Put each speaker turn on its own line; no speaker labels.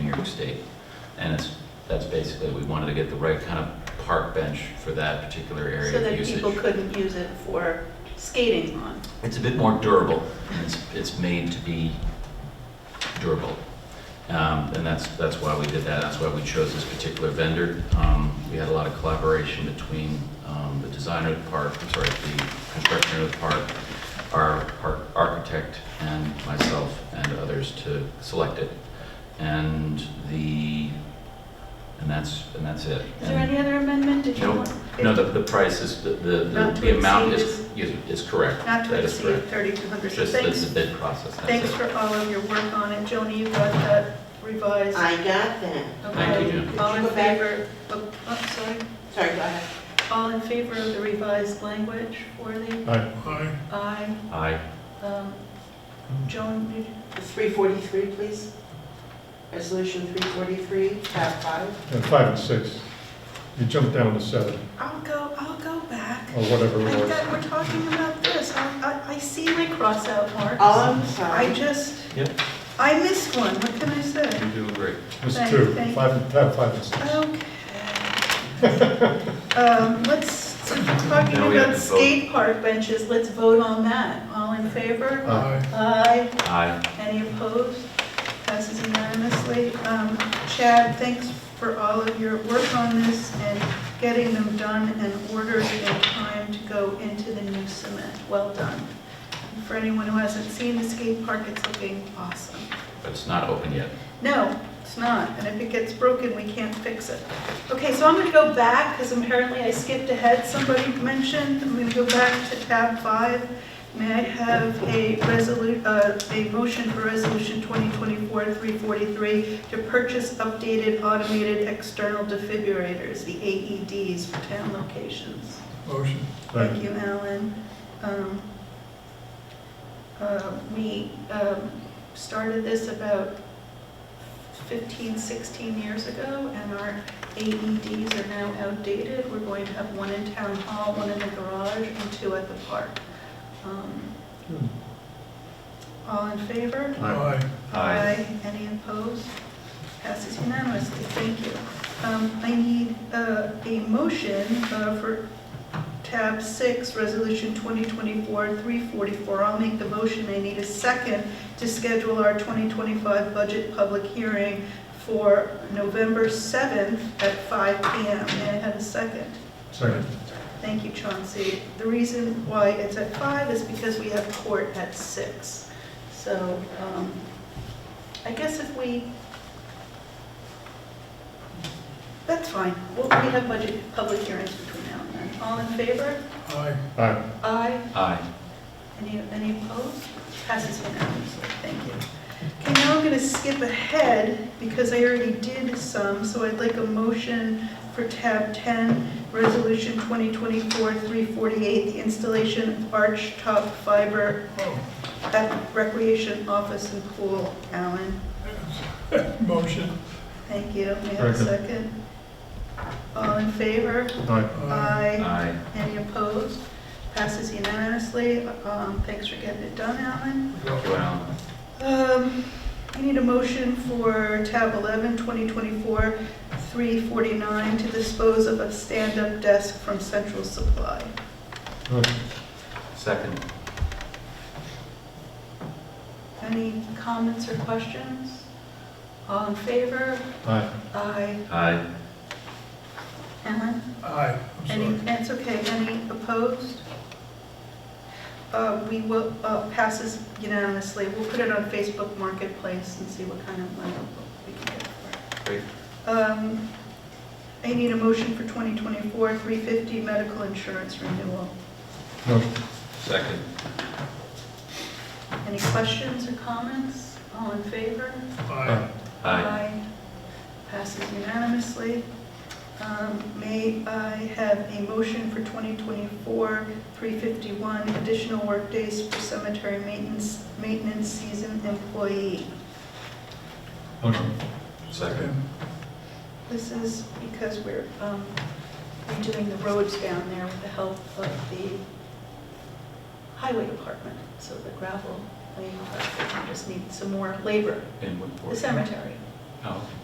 York State. And it's, that's basically, we wanted to get the right kind of park bench for that particular
So
area of
that
usage.
people couldn't use it for skating on.
It's a bit more durable, and it's, it's made to be durable. Um, And that's, that's why we did that, that's why we chose this particular vendor. Um, We had a lot of collaboration between um, the designer of the park, I'm sorry, the construction of the park, our park architect, and myself, and others to select it. And the, and that's, and that's it.
Is there any other amendment? Did you
No,
want-
No, the, the price is, the, the-
Not to
the amount
exceed
is, is is correct.
Not to
That is correct.
exceed 3,200. So
Just the
thanks,
the bid process,
thanks
that's it.
for all of your work on it. Joni, you got that revised?
I got that.
Thank you,
Okay.
Joni.
All in
Could you go back?
favor, oh, oh, sorry,
Sorry, go ahead.
all in favor of the revised language for the,
Aye.
I,
Aye.
um, Joan, did you-
343, please. Resolution 343, tab five.
And five and six, you jump down to seven,
I'll go, I'll go back.
Oh,
or whatever
I
it
thought
was.
we're talking about this. I, I, I see the crossout marks.
Oh, I'm
I
sorry.
just,
Yep.
I missed one, what can I say?
We do agree.
It's
Thank-
two,
thank-
five, and- tab five and six.
Okay. Um, Let's, talking
Now we have to
about
vote.
skate park benches, let's vote on that. All in favor?
Aye.
Aye.
Aye.
Any opposed? Passes unanimously. Um, Chad, thanks for all of your work on this and getting them done and ordered in time to go into the new cement. Well done. For anyone who hasn't seen the skate park, it's looking awesome.
But it's not open yet.
No, it's not, and if it gets broken, we can't fix it. Okay, so I'm gonna go back, because apparently I skipped ahead, somebody mentioned, I'm gonna go back to tab five. May I have a resolu, uh, a motion for resolution 2024-343 to purchase updated automated external defibrillators, the AEDs for town locations?
Motion.
Thank you, Alan. Um, uh, We um, started this about 15, 16 years ago, and our AEDs are now outdated. We're going to have one in town hall, one in the garage, and two at the park. Um,
Hmm.
All in favor?
Aye.
Any opposed? Passes unanimously, thank you. Um, I need uh, a motion uh, for tab six, resolution 2024-344. I'll make the motion, I need a second to schedule our 2025 budget public hearing for November 7th at 5 PM. May I have a second?
Second.
Thank you, Chauncey. The reason why it's at five is because we have court at six. So um, I guess if we, that's fine. We'll- We have budget, public hearings between now and then. All in favor?
Aye. Aye.
Aye.
Aye.
Any, any opposed? Passes unanimously, thank you. Okay, now I'm gonna skip ahead, because I already did some, so I'd like a motion for tab 10, resolution 2024-348, the installation of arch top fiber at recreation office and pool. Alan,
Motion.
thank you, may I have a
Second.
second? All in favor?
Aye.
Aye.
Aye.
Any opposed? Passes unanimously. Um, Thanks for getting it done, Alan.
Well,
Um, I need a motion for tab 11, 2024, 349, to dispose of a stand-up desk from Central Supply.
Motion.
second.
Any comments or questions? All in favor?
Aye.
Aye.
Aye.
Alan?
Aye.
Any, that's okay, any opposed? Uh, We will, uh, passes unanimously. We'll put it on Facebook Marketplace and see what kind of money we can get for it.
Great.
Um, I need a motion for 2024-350 medical insurance renewal.
Motion.
Second.
Any questions or comments? All in favor?
Aye.
Aye.
Passes unanimously. Um, May I have a motion for 2024-351 additional workdays for cemetery maintenance, maintenance season employee?
Motion.
Second.
This is because we're um, redoing the roads down there with the help of the highway department, so the gravel, I mean, we just need some more labor,
In what
the
form?
cemetery.
Oh.